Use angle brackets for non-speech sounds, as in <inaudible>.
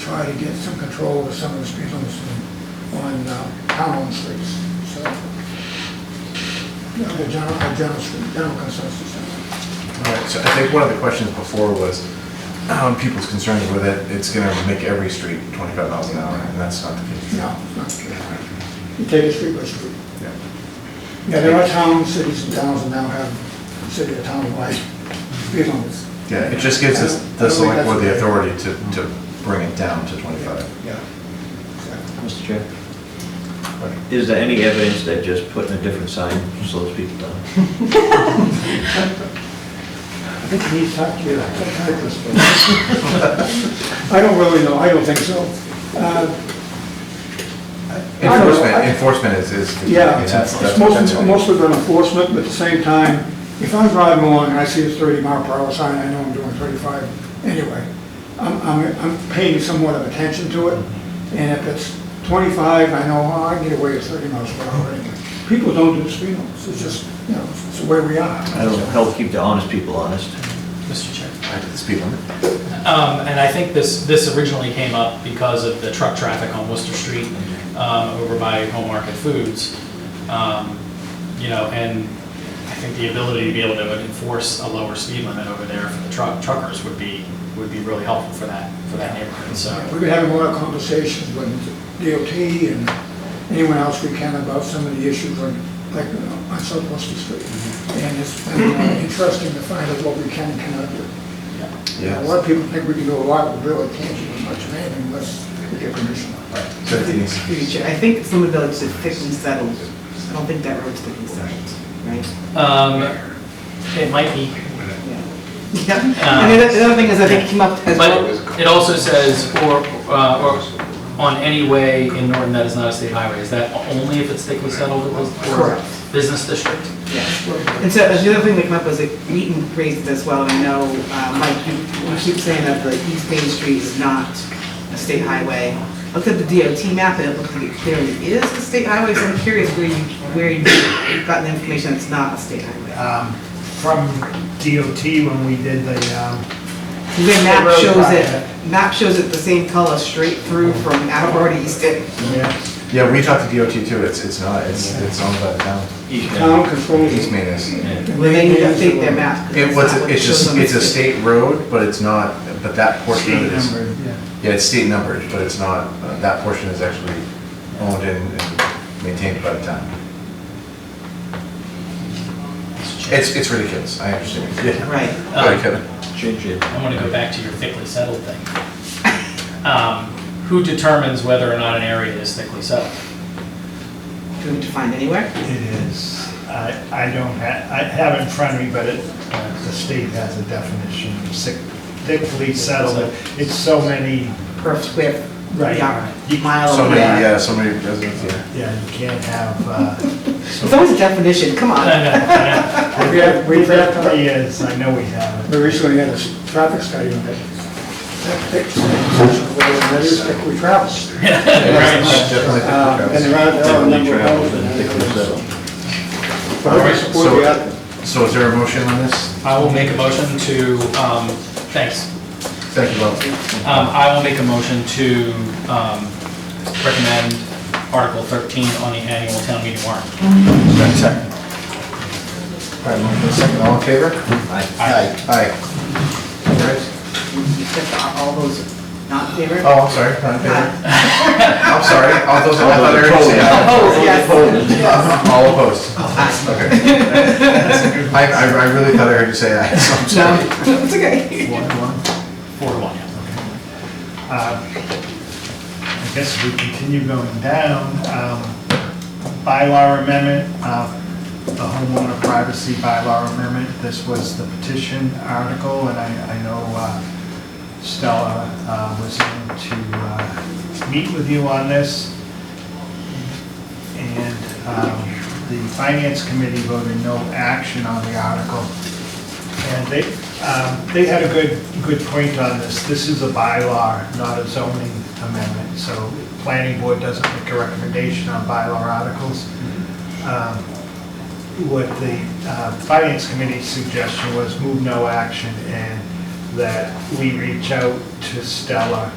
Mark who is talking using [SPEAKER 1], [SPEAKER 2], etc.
[SPEAKER 1] try to get some control over some of the speed limits on, on uh, town-owned streets, so. Yeah, the general, the general, general consensus.
[SPEAKER 2] All right, so I think one of the questions before was, um, people's concerns with it, it's gonna make every street twenty-five miles an hour, and that's not the case.
[SPEAKER 1] No, it's not, you take it street by street.
[SPEAKER 2] Yeah.
[SPEAKER 1] Yeah, there are towns, cities and towns that now have city or <laughs> town-wide speed limits.
[SPEAKER 2] Yeah, it just gives us,
[SPEAKER 1] I
[SPEAKER 2] the
[SPEAKER 1] don't think
[SPEAKER 2] select board the
[SPEAKER 1] that's-
[SPEAKER 2] authority to, to bring it down to twenty-five.
[SPEAKER 1] Yeah.
[SPEAKER 3] Mr. Chair? Is there any evidence that just putting a different sign slows people down?
[SPEAKER 1] I think you need to talk to your psychiatrist. but- <laughs> I don't really know, I don't think so. Uh, I don't know.
[SPEAKER 2] Enforcement, enforcement is, is.
[SPEAKER 1] Yeah,
[SPEAKER 2] that's-
[SPEAKER 1] it's
[SPEAKER 2] that's- that's
[SPEAKER 1] mostly,
[SPEAKER 2] what-
[SPEAKER 1] mostly been enforcement, but at the same time, if I'm driving along and I see a thirty mile per hour sign, I know I'm doing thirty-five anyway. I'm, I'm, I'm paying somewhat of attention to it, and if it's twenty-five, I know, oh, I can get away with thirty miles per hour anyway. People don't do the speed limits, it's just, you know, it's the way we are.
[SPEAKER 3] That'll help keep the honest people honest.
[SPEAKER 4] Mr. Chair.
[SPEAKER 2] I did the Speed limit.
[SPEAKER 4] Um, and I think this, this originally came up because of the truck traffic on Worcester Street, um, over by Home Market Foods. Um, you know, and I think the ability to be able to enforce a lower speed limit over there for the truck, truckers would be, would be really helpful for that, for that neighborhood, so.
[SPEAKER 1] We've been having a lot of conversations with DOT and anyone else we can about some of the issues on, like, uh, on South Worcester Street. And it's been uh, interesting to find out what we can and cannot do.
[SPEAKER 4] yeah.
[SPEAKER 2] Yeah.
[SPEAKER 1] A lot of people think we can do a lot, but really can't do much of anything unless we get permission.
[SPEAKER 2] So Denise,
[SPEAKER 5] future. I think some of those are thickly settled. I don't think that road's thickly settled, right?
[SPEAKER 4] Um, it might be,
[SPEAKER 5] Yeah. Yeah. And the other- the other thing is, I think it came up as well.
[SPEAKER 4] but it also says, or, uh, or on any way in Norton that is not a state highway, is that only if it's thickly settled or- or
[SPEAKER 5] Correct.
[SPEAKER 4] business district?
[SPEAKER 5] Yeah. And so, and the other thing that came up was, like, Wheaton raised this well, and I know, uh, Mike, you, you keep saying that the East Main Street is not a state highway. I Looked at the DOT map, and it looked like it clearly is a state highway, so I'm curious where you, where you got the information it's not a state highway.
[SPEAKER 6] um, from DOT when we did the, um,
[SPEAKER 5] The map
[SPEAKER 6] road
[SPEAKER 5] shows it,
[SPEAKER 6] project.
[SPEAKER 5] map shows it the same color straight through from Attleboro to Easton.
[SPEAKER 2] yeah, we talked to DOT too, it's, it's not, it's, it's owned by the town.
[SPEAKER 1] Town controls.
[SPEAKER 2] East Main is.
[SPEAKER 5] Well, they need to update their map. 'cause
[SPEAKER 2] It,
[SPEAKER 5] that's
[SPEAKER 2] what's,
[SPEAKER 5] not what
[SPEAKER 2] it's
[SPEAKER 5] it shows
[SPEAKER 2] just,
[SPEAKER 5] on the
[SPEAKER 2] it's a
[SPEAKER 5] screen.
[SPEAKER 2] state road, but it's not, but that portion of it is.
[SPEAKER 6] number, yeah.
[SPEAKER 2] Yeah, it's state numbered, but it's not, uh, that portion is actually owned and and maintained by the town. It's, it's ridiculous, I understand. Yeah.
[SPEAKER 5] Right.
[SPEAKER 2] Sorry, Kevin.
[SPEAKER 3] Change it.
[SPEAKER 4] I want to go back to your thickly settled thing. Um, Who determines whether or not an area is thickly settled?
[SPEAKER 5] Do we find anywhere?
[SPEAKER 6] it is, I, I don't ha, I have it in front of me, but it, uh, the state has a definition of sick, thickly settled. It's so many,
[SPEAKER 5] Per square
[SPEAKER 6] Right.
[SPEAKER 5] yard, mile
[SPEAKER 2] So
[SPEAKER 5] or
[SPEAKER 2] many,
[SPEAKER 5] whatever.
[SPEAKER 2] yeah, so many residents, yeah.
[SPEAKER 6] yeah, you can't have, uh,
[SPEAKER 5] It's always a definition, come
[SPEAKER 4] I
[SPEAKER 5] on.
[SPEAKER 4] know, I
[SPEAKER 1] We had, we had, uh,
[SPEAKER 6] yes, I know we have
[SPEAKER 1] we
[SPEAKER 6] it.
[SPEAKER 1] recently had a s- traffic study on that. That takes- That is, like, we travel.
[SPEAKER 2] It's definitely
[SPEAKER 1] Uh, And
[SPEAKER 2] different.
[SPEAKER 1] there are, there are a number of
[SPEAKER 3] Definitely
[SPEAKER 1] those.
[SPEAKER 3] travel, then thickly settled.
[SPEAKER 1] But I support the
[SPEAKER 2] So-
[SPEAKER 1] other.
[SPEAKER 2] So is there a motion on this?
[SPEAKER 4] know. I will make a motion to, um, thanks.
[SPEAKER 2] Thank you, Bob.
[SPEAKER 4] Um, I will make a motion to um, recommend Article 13 on the annual town meeting warrant.
[SPEAKER 2] Second. All right, motion second, all in favor? Aye. Aye. Aye. All right.
[SPEAKER 5] You said all those not favored?
[SPEAKER 2] Oh, I'm sorry, not in favor. I'm sorry, all those, I thought everyone said <laughs> aye.
[SPEAKER 5] Opposed, yes.
[SPEAKER 2] All opposed? <laughs> Okay. I, I I really thought I heard you say aye, so I'm sorry.
[SPEAKER 5] No, <laughs> it's okay.
[SPEAKER 4] Four to one.
[SPEAKER 6] Uh, I guess we continue going down. Um, Bylaw amendment, uh, the homeowner privacy bylaw amendment, this was the petition article, and I, I know uh, Stella uh, was going to uh, meet with you on this. And um, the finance committee voted no action on the article. And they, um, they had a good, good point on this. This is a bylaw, not a zoning amendment, so planning board doesn't make a recommendation on bylaw articles. Um, What the uh, finance committee's suggestion was move no action and that we reach out to Stella